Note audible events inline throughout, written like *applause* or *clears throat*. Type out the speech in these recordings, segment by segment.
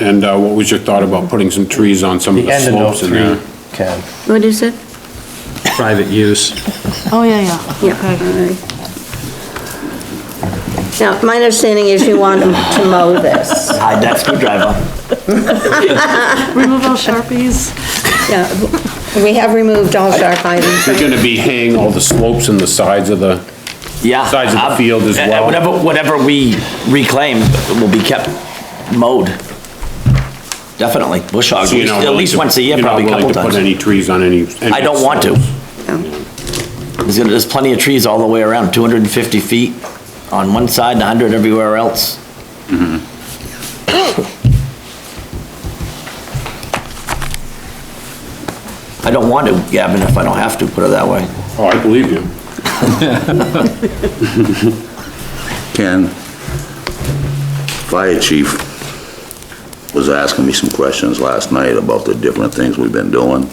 And uh, what was your thought about putting some trees on some of The the end of note slopes in there? three, Ken. What is it? Private use. Oh, yeah, yeah. Yeah. all right. Now, my understanding is you want them to mow this. Hide that screwdriver. Remove all Sharpies. Yeah, We have removed all sharp items. You're gonna be hanging all the slopes and the sides of the, Yeah. Size of the I'm- field as uh, well. Whatever, whatever we reclaim will be kept mowed. Definitely. Bush hog, so you're not at willing least to- once a year, you're not probably a willing to couple Put times. any trees on any. any I don't want to. slopes. There's gonna- there's plenty of trees all the way around, 250 feet on one side, 100 everywhere else. I don't want to, Gavin, if I don't have to, put it that way. Oh, I believe you. Ken, Fire Chief was asking me some questions last night about the different things we've been doing.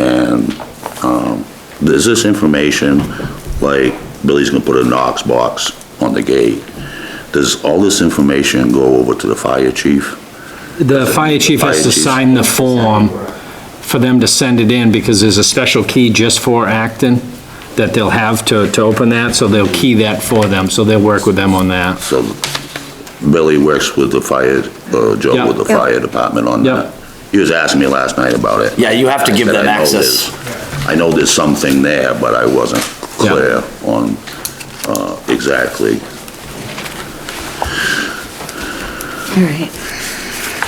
And um, there's this information, like Billy's gonna put a Knox box on the gate. Does all this information go over to the fire chief? The fire chief has Fire to chief. sign the form for them to send it in, because there's a special key just for Acton that they'll have to, to open that, so they'll key that for them, so they'll work with them on that. So Billy works with the fire, uh, Joe with the Yeah. fire department on Yeah. that. He was asking me last night about it. Yeah, you have to I give said, them "I know access. there's- I know there's something there, but I wasn't Yeah. clear on, uh, exactly. All right.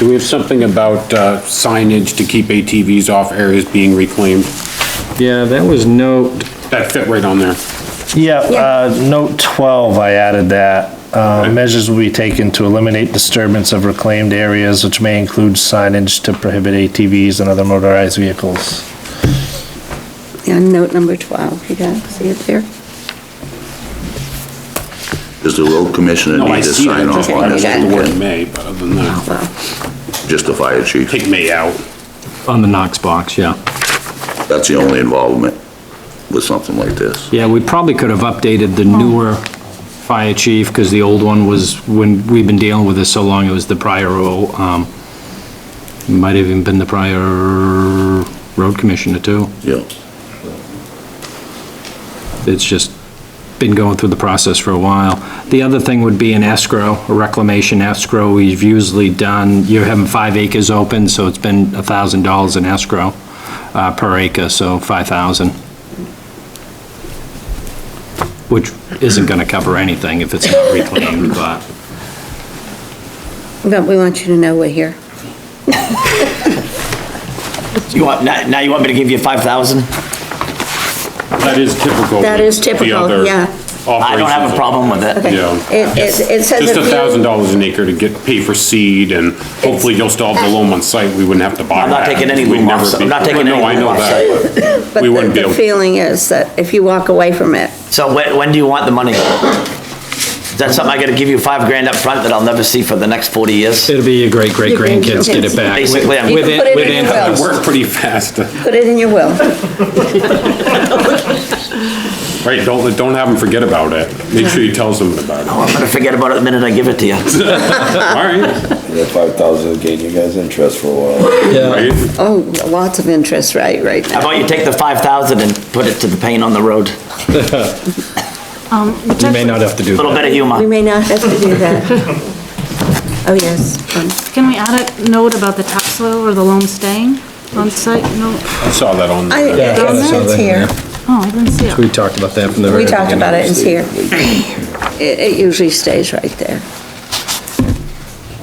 Do we have something about uh, signage to keep ATVs off areas being reclaimed? Yeah, that was note, That fit right on there. yeah, Yeah. uh, note 12, I added that. Uh, measures will be taken to eliminate disturbance of reclaimed areas, which may include signage to prohibit ATVs and other motorized vehicles. Yeah, note number 12, you got, see it there? Does the road commissioner No, I need to see it, I sign just off I on don't this? Okay, like the word one? may, but other than that, Oh, Well, Just the fire chief? take may out. On the Knox box, yeah. That's the only involvement with something like this? Yeah, we probably could have updated the newer fire chief, because the old one was, when, we've been dealing with this so long, it was the prior, um, might have even been the prior road commissioner too. Yeah. It's just been going through the process for a while. The other thing would be an escrow, a reclamation escrow. We've usually done, you're having five acres open, so it's been a thousand dollars in escrow, uh, per acre, so five thousand. Which isn't gonna cover anything if it's not reclaimed, but But we want you to know we're here. You want, now now you want me to give you 5,000? That is typical. That with is typical, the other yeah. I don't have operations. a problem with it. Okay. Yeah. It, it it says. Just if a you- thousand dollars an acre to get, pay for seed, and hopefully you'll still have the loam on site, we wouldn't have to buy I'm not that. taking any We'd loam off never site. be- I'm not taking No, any I know loam off that. But we wouldn't be the- able- The feeling is that if you walk away from it, So when, when do you want the money? Is that something I gotta give you five grand up front that I'll never see for the next 40 years? it'll be your great-great-grandkids get it back. Basically, I'm- With You can put it it, in with your It interest. worked pretty fast. *laughs* put it in your will. Right, don't, don't have them forget about it. Make sure you tell someone about it. I'm gonna forget about it the minute I give it to you. All right, That five thousand will gain you guys interest for a while. right? Oh, lots of interest, right, right now. How about you take the 5,000 and put it to the paint on the road? A Um, You may not have to do that. Little bit of We humor. may not have to do that. *laughs* Oh, yes. um, Can we add a note about the topsoil or the loam staying on site? No, I saw that on I, there. I it's saw it's that in here. oh, I didn't see it. We talked about that from the very We beginning. talked about it, it's here. *clears throat* It, it usually stays right there.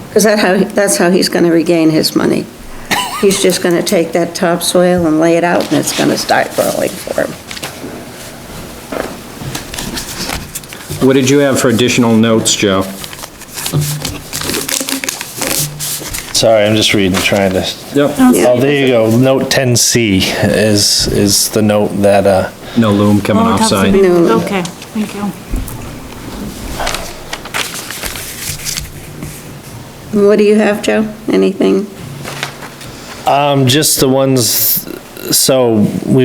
Because that how, that's how he's gonna regain his money. He's just gonna take that topsoil and lay it out, and it's gonna start growing for him. What did you have for additional notes, Joe? Sorry, I'm just reading, trying to, Yep, oh, there you go, note 10C is, is the note that, uh, no loom coming Oh, off topsoil. site. No. Okay, thank you. What do you have, Joe? Anything? um, just the ones, so we